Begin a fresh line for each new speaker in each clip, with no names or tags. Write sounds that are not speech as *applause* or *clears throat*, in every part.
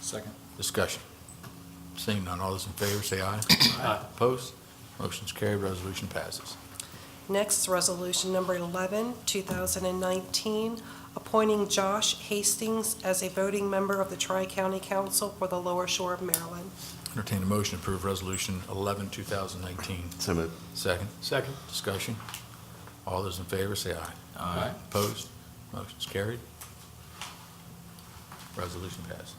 Second.
Discussion. Seeing none, all those in favor say aye.
Aye.
Opposed? Motion's carried, resolution passes.
Next is Resolution Number 11, 2019, appointing Josh Hastings as a voting member of the Tri-County Council for the Lower Shore of Maryland.
Entertain a motion to approve Resolution 11, 2019.
So moved.
Second,
Second.
discussion. All those in favor say aye.
Aye.
Opposed? Motion's carried. Resolution passes.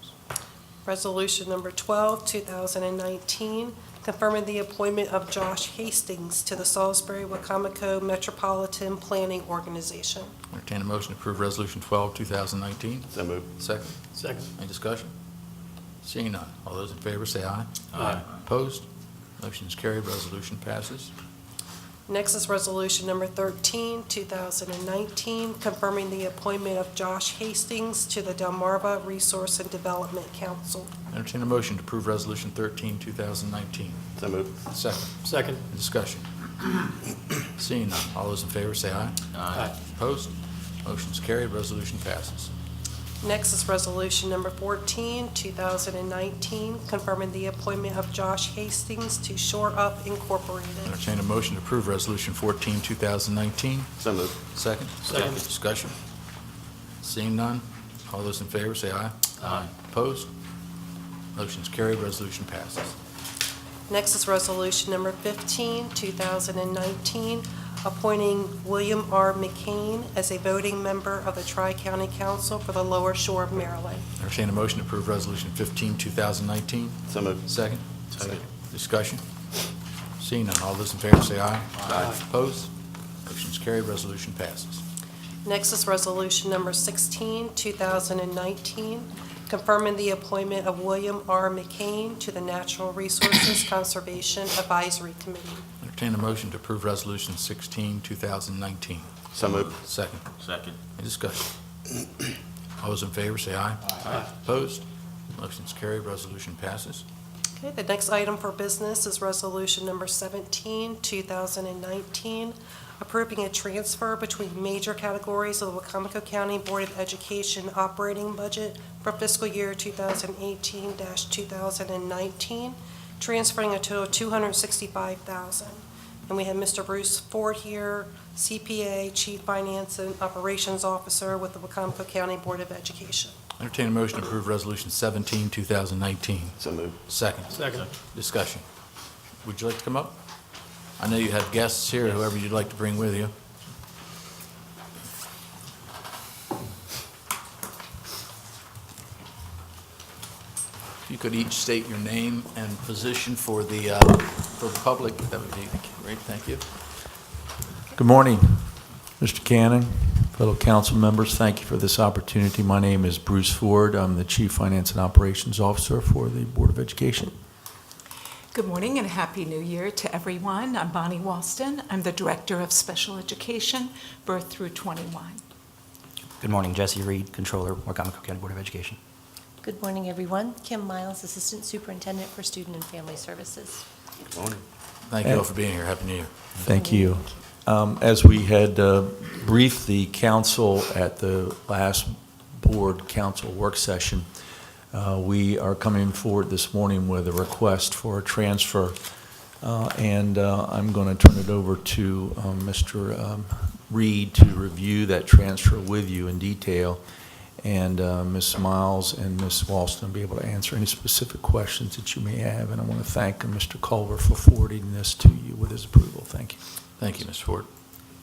Resolution Number 12, 2019, confirming the appointment of Josh Hastings to the Salisbury-Wycomico Metropolitan Planning Organization.
Entertain a motion to approve Resolution 12, 2019.
So moved.
Second,
Second.
any discussion? Seeing none, all those in favor say aye.
Aye.
Opposed? Motion's carried, resolution passes.
Next is Resolution Number 13, 2019, confirming the appointment of Josh Hastings to the Delmarva Resource and Development Council.
Entertain a motion to approve Resolution 13, 2019.
So moved.
Second,
Second.
any discussion? Seeing none, all those in favor say aye.
Aye.
Opposed? Motion's carried, resolution passes.
Next is Resolution Number 14, 2019, confirming the appointment of Josh Hastings to Shore Up Incorporated.
Entertain a motion to approve Resolution 14, 2019.
So moved.
Second?
Second.
Discussion? Seeing none, all those in favor say aye.
Aye.
Opposed? Motion's carried, resolution passes.
Next is Resolution Number 15, 2019, appointing William R. McCain as a voting member of the Tri-County Council for the Lower Shore of Maryland.
Entertain a motion to approve Resolution 15, 2019.
So moved.
Second?
Second.
Discussion? Seeing none, all those in favor say aye.
Aye.
Opposed? Motion's carried, resolution passes.
Next is Resolution Number 16, 2019, confirming the appointment of William R. McCain to the Natural Resources Conservation Advisory Committee.
Entertain a motion to approve Resolution 16, 2019.
So moved.
Second.
Second.
Any discussion? *clears throat* All those in favor say aye.
Aye.
Opposed? Motion's carried, resolution passes.
Okay, the next item for business is Resolution Number 17, 2019, approving a transfer between major categories of the Wacomico County Board of Education operating budget for fiscal year 2018-2019, transferring a total of 265000 And we have Mr. Bruce Ford here, CPA, Chief Finance and Operations Officer with the Wacomico County Board of Education.
Entertain a motion to approve Resolution 17, 2019.
So moved.
Second.
Second.
Discussion. Would you like to come up? I know you have guests here, whoever you'd like to bring with you. If you could each state your name and position for the, uh, for the public, that would be great, thank you.
Good morning, Mr. Cannon, fellow council members. Thank you for this opportunity. My name is Bruce Ford. I'm the Chief Finance and Operations Officer for the Board of Education.
Good morning and Happy New Year to everyone. I'm Bonnie Walston. I'm the Director of Special Education, Birth Through 21.
Good morning, Jesse Reed, Controller, Wycomico County Board of Education.
Good morning, everyone. Kim Miles, Assistant Superintendent for Student and Family Services.
Good morning.
Thank you all for being here, Happy New Year.
Thank you. Um, As we had uh, briefed the council at the last board council work session, uh, we are coming forward this morning with a request for a transfer, Uh, and uh, I'm going to turn it over to um, Mr. um, Reed to review that transfer with you in detail, and uh, Ms. Miles and Ms. Walston will be able to answer any specific questions that you may have, and I want to thank Mr. Culver for forwarding this to you with his approval. Thank you.
Thank you, Ms. Ford.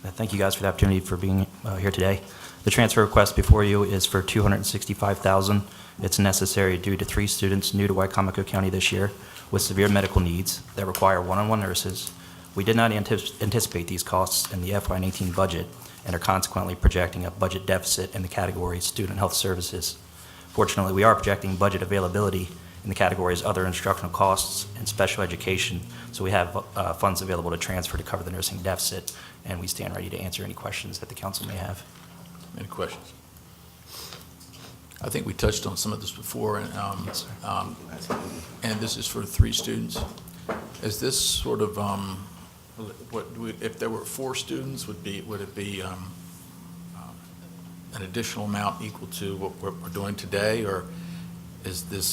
Uh, Thank you guys for the opportunity for being uh, here today. The transfer request before you is for $265,000. It's necessary due to three students new to Wycomico County this year with severe medical needs that require one-on-one nurses. We did not antis- anticipate these costs in the FY19 budget and are consequently projecting a budget deficit in the category Student Health Services. Fortunately, we are projecting budget availability in the categories Other Instructional Costs and Special Education, so we have uh, funds available to transfer to cover the nursing deficit, and we stand ready to answer any questions that the council may have.
Any questions? I think we touched on some of this before, and, um,
Yes, sir.
um, and this is for three students. Is this sort of, um, what, do we- if there were four students, would be, would it be um, um, an additional amount equal to what we're we're doing today, or is this